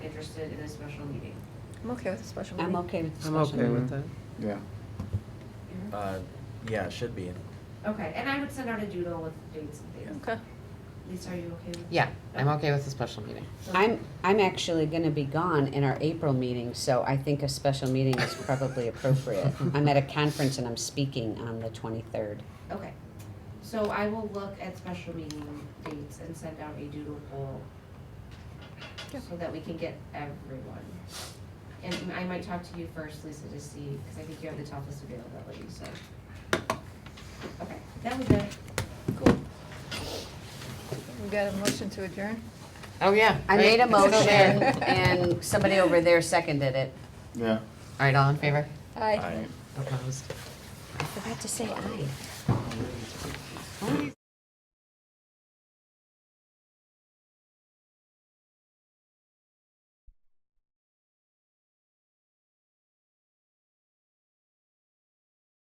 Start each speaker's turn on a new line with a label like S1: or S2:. S1: interested in a special meeting?
S2: I'm okay with a special meeting.
S3: I'm okay with
S4: I'm
S3: discussion.
S4: okay with that.
S5: Yeah.
S6: Uh, yeah, it should be.
S1: Mm-hmm. Okay, and I would send out a doodle with dates and things.
S2: Okay.
S1: Lisa, are you okay with?
S7: Yeah, I'm okay with a special meeting.
S3: I'm, I'm actually gonna be gone in our April meeting, so I think a special meeting is probably appropriate. I'm at a conference and I'm speaking on the twenty-third.
S1: Okay, so I will look at special meeting dates and send out a doodle poll so that we can get everyone. And I might talk to you first, Lisa, to see, because I think you have the toughest availability, so. Okay, that was it.
S2: Cool. We got a motion to adjourn?
S7: Oh, yeah.
S3: I made a
S7: right, it's still
S3: motion
S7: there.
S3: and somebody over there seconded it.
S5: Yeah.
S7: All right, all in favor?
S2: Aye.
S6: I-
S7: Opposed?
S3: I forgot to say aye.